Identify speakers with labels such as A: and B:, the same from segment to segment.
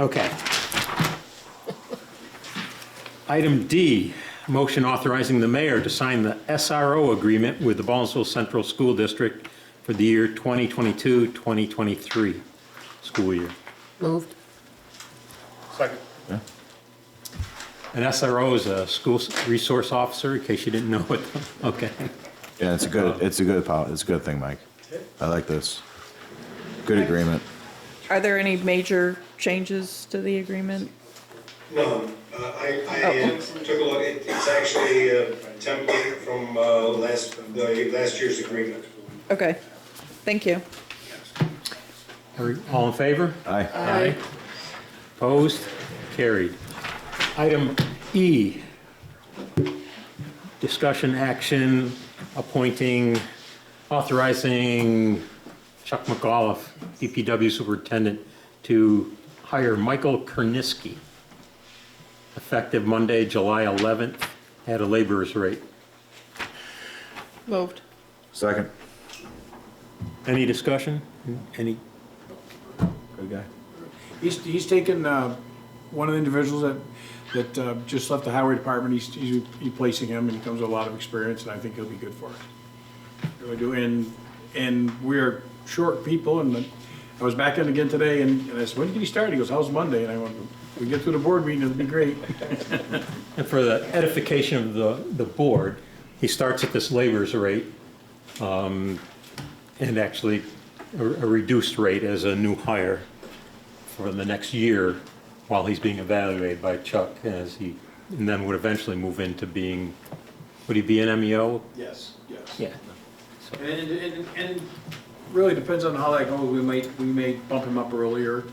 A: Okay. Item D, motion authorizing the mayor to sign the SRO agreement with the Ballsville Central School District for the year 2022-2023 school year.
B: Moved.
C: Second.
A: An SRO is a school resource officer, in case you didn't know what, okay.
D: Yeah, it's a good, it's a good, pol- it's a good thing, Mike. I like this. Good agreement.
E: Are there any major changes to the agreement?
F: None. Uh, I, I uh, took a look, It- it's actually a template from uh, last, the last year's agreement.
E: Okay, thank you.
A: Are- All in favor?
D: Aye.
A: Aye. Opposed? Carried. Item E, discussion action appointing, authorizing Chuck McAuliffe, DPW Superintendent, to hire Michael Kerniski, effective Monday, July 11th, at a laborer's rate.
E: Moved.
D: Second.
A: Any discussion? Any?
D: Good guy.
C: He's, he's taken, uh, one of the individuals that, that, uh, just left the highway department, he's, he's replacing him, and he comes with a lot of experience, and I think he'll be good for us. Really do, and, and we're short people, and I was back in again today, and and I said, when did he start? He goes, how's Monday? And I went, we get through the board meeting, it'll be great.
A: And for the edification of the, the board, he starts at this labor's rate, um, and actually a a reduced rate as a new hire for the next year while he's being evaluated by Chuck as he, and then would eventually move into being, would he be an E MEO?
C: Yes, yes.
A: Yeah.
C: And, and, and really depends on how that goes, we might, we may bump him up earlier,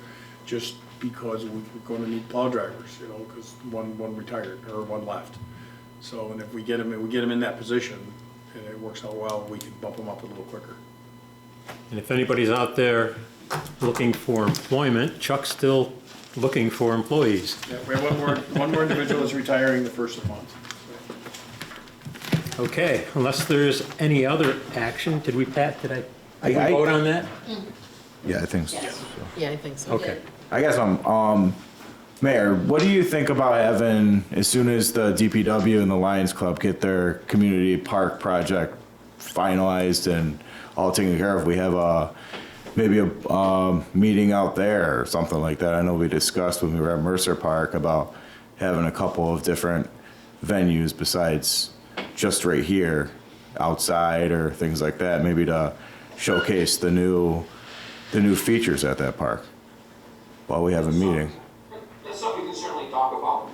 C: just because we- we're gonna need plow drivers, you know, because one, one retired, or one left. So, and if we get him, if we get him in that position, and it works out well, we can bump him up a little quicker.
A: And if anybody's out there looking for employment, Chuck's still looking for employees.
C: Yeah, we have one more, one more individual is retiring the first of the month.
A: Okay, unless there's any other action, did we, Pat, did I, did
D: I-
A: we
D: I-
A: vote on that?
D: Yeah, I think so.
B: Yeah, I think so.
A: Okay.
D: I guess I'm, um, Mayor, what do you think about having, as soon as the DPW and the Lions Club get their community park project finalized and all taken care of, we have a, maybe a, um, meeting out there or something like that. I know we discussed when we were at Mercer Park about having a couple of different venues besides just right here, outside or things like that, maybe to showcase the new, the new features at that park while we have a meeting.
G: That's something we can certainly talk about.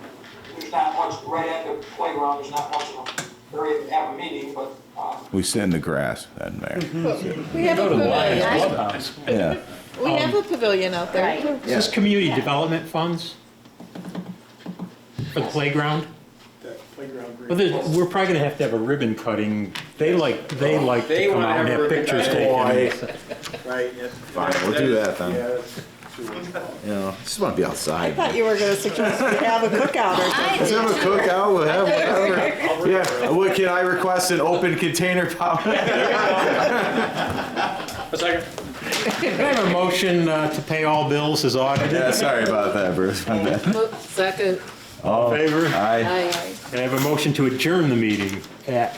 G: There's not much, right at the playground, there's not much of an area to have a meeting, but, um,
D: We sit in the grass then, Mayor.
E: We have a pavilion,
D: Yeah.
E: we have a pavilion out there.
A: Is this community development funds? For the playground?
C: That playground.
A: Well, there's- we're probably gonna have to have a ribbon cutting. They like, they like
C: Oh, They
A: to come
C: wanna
A: out and
C: have
A: have
C: ribbon
A: pictures
D: cutting.
A: taken.
C: Right. Fine,
D: we'll do that then.
C: then.
D: You know, just want to be
E: I
D: outside.
E: thought you were gonna suggest we have a cookout or something.
D: Let's have a cookout, we'll have whatever. Yeah, Uh, what can I request an open container pop?
C: A second.
A: Can I have a motion uh, to pay all bills as audited?
D: Yeah, sorry about that, Bruce, my bad.
B: Mo- Second.
A: All in favor?
D: Aye.
B: Aye.
A: Can I have a motion to adjourn the meeting at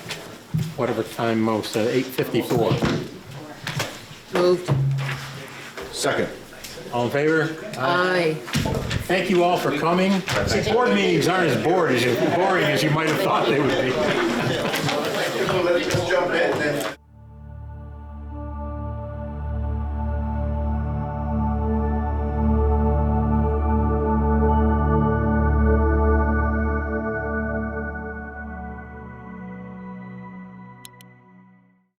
A: whatever time most, uh, 8:54?
B: Moved.
D: Second.
A: All in favor?
B: Aye.
A: Thank you all for coming. Board meetings aren't as bored as, boring as you might have thought they would be.
D: Let's jump in then.